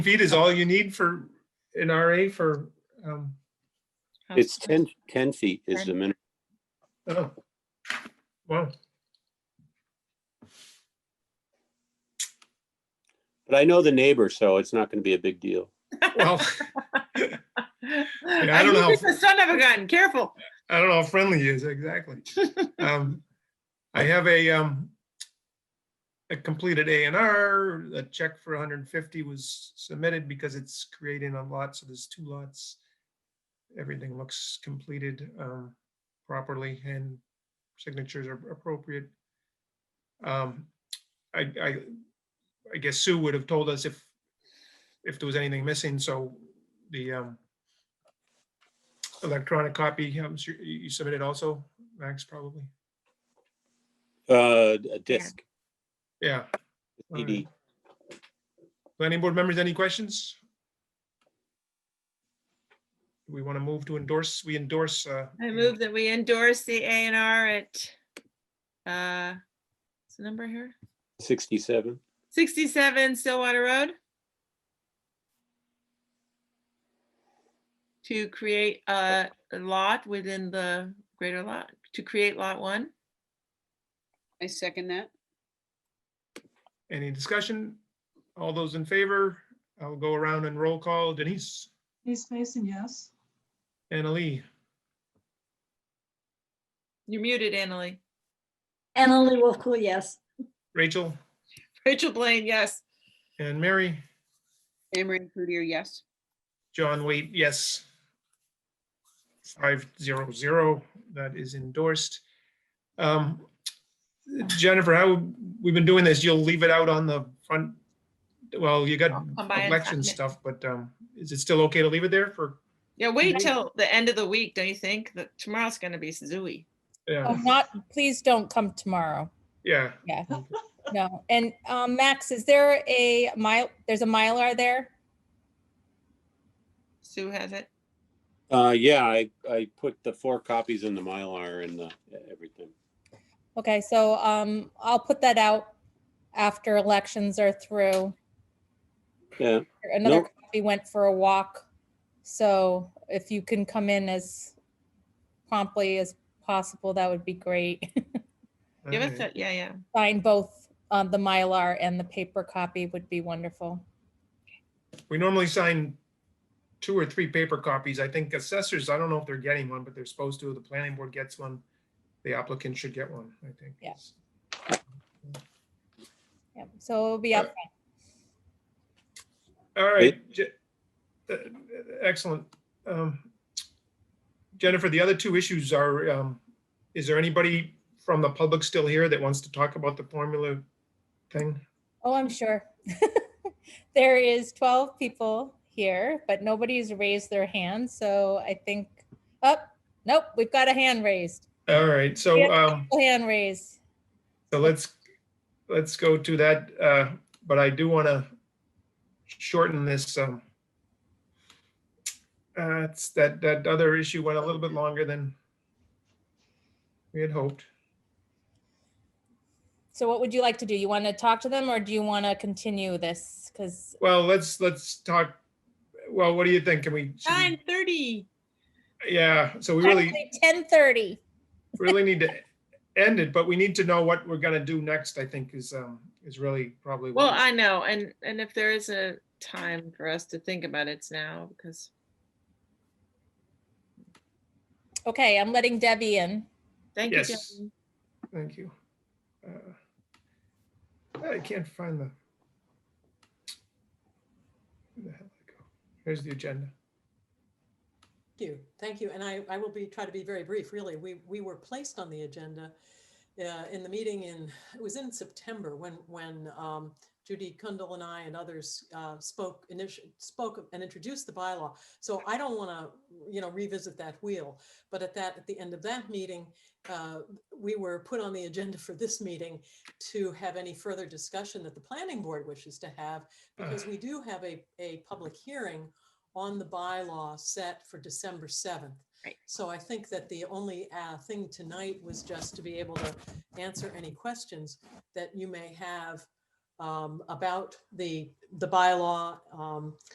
feet is all you need for an RA for, um, It's 10, 10 feet is the minimum. oh, wow, But I know the neighbor, so it's not going to be a big deal. well, I I don't know. knew The son of a gun, careful. I don't know how friendly he is exactly. Um, I have a, um, a completed A and R, a check for hundred and fifty was submitted because it's creating a lot, so there's two lots. Everything looks completed, um, properly and signatures are appropriate. Um, I, I, I guess Sue would have told us if, if there was anything missing, so the, um, electronic copy, I'm sure you you submitted also, Max, probably, Uh, a disc, yeah. a CD. Planning board members, any questions? Do We want to move to endorse, we endorse. uh, I move that we endorse the A and R at, uh, what's the number here? 67. Sixty-seven Stillwater Road. To create a a lot within the greater lot, to create lot one. I second that. Any discussion? All those in favor? I'll go around and roll call. Denise, Denise Mason, yes. Annalee, You're muted, Annalee. Annalee Wolfcool, yes. Rachel, Rachel Blaine, yes. and Mary. Emery Cloutier, yes. John Waite, yes. Five zero zero, that is endorsed. Um, Jennifer, how, we've been doing this, you'll leave it out on the front, well, you got Come by and sign election it. stuff, but um, is it still okay to leave it there for? Yeah, wait till the end of the week, don't you think? That tomorrow's gonna be zooey. Oh, Yeah, not, please don't come tomorrow. yeah, Yeah, no. And um, Max, is there a mile, there's a Mylar there? Sue has it. Uh, yeah, I, I put the four copies in the Mylar and the, e-, everything. Okay, so um, I'll put that out after elections are through. Yeah, Another Nope. copy went for a walk. So if you can come in as promptly as possible, that would be great. Give us okay. that, yeah, yeah. Sign both um, the Mylar and the paper copy would be wonderful. We normally sign two or three paper copies. I think assessors, I don't know if they're getting one, but they're supposed to. The planning board gets one. The applicant should get one, I think. Yeah. Yeah, so it'll be Uh, up All right. Je- uh, Excellent. Um, Jennifer, the other two issues are, um, is there anybody from the public still here that wants to talk about the formula thing? Oh, I'm sure. There is 12 people here, but nobody's raised their hand, so I think, oh, nope, we've got a hand raised. All right, so, um, Hand raised. so let's, let's go to that, uh, but I do want to shorten this, um, uh, it's that, that other issue went a little bit longer than we had hoped. So what would you like to do? You want to talk to them or do you want to continue this? Because, Well, let's, let's talk, well, what do you think? Can we? should we- Nine thirty. Yeah, so we really, 10:30. really need to end it, but we need to know what we're gonna do next, I think is, um, is really probably. what Well, we- I know, and, and if there is a time for us to think about it, it's now, because Okay, I'm letting Debbie in. thank you. Yes. Jen. Thank you. Uh, I can't find the. Where the hell did it go? Here's the agenda. Thank you, thank you. And I, I will be, try to be very brief, really. We, we were placed on the agenda uh, in the meeting in, it was in September when, when um, Judy Kundal and I and others uh, spoke, initial spoke and introduced the bylaw. So I don't want to, you know, revisit that wheel. But at that, at the end of that meeting, uh, we were put on the agenda for this meeting to have any further discussion that the planning board wishes to have because we do have a, a public hearing on the bylaw set for December 7th. Right. So I think that the only uh, thing tonight was just to be able to answer any questions that you may have um, um, about the, the bylaw, um,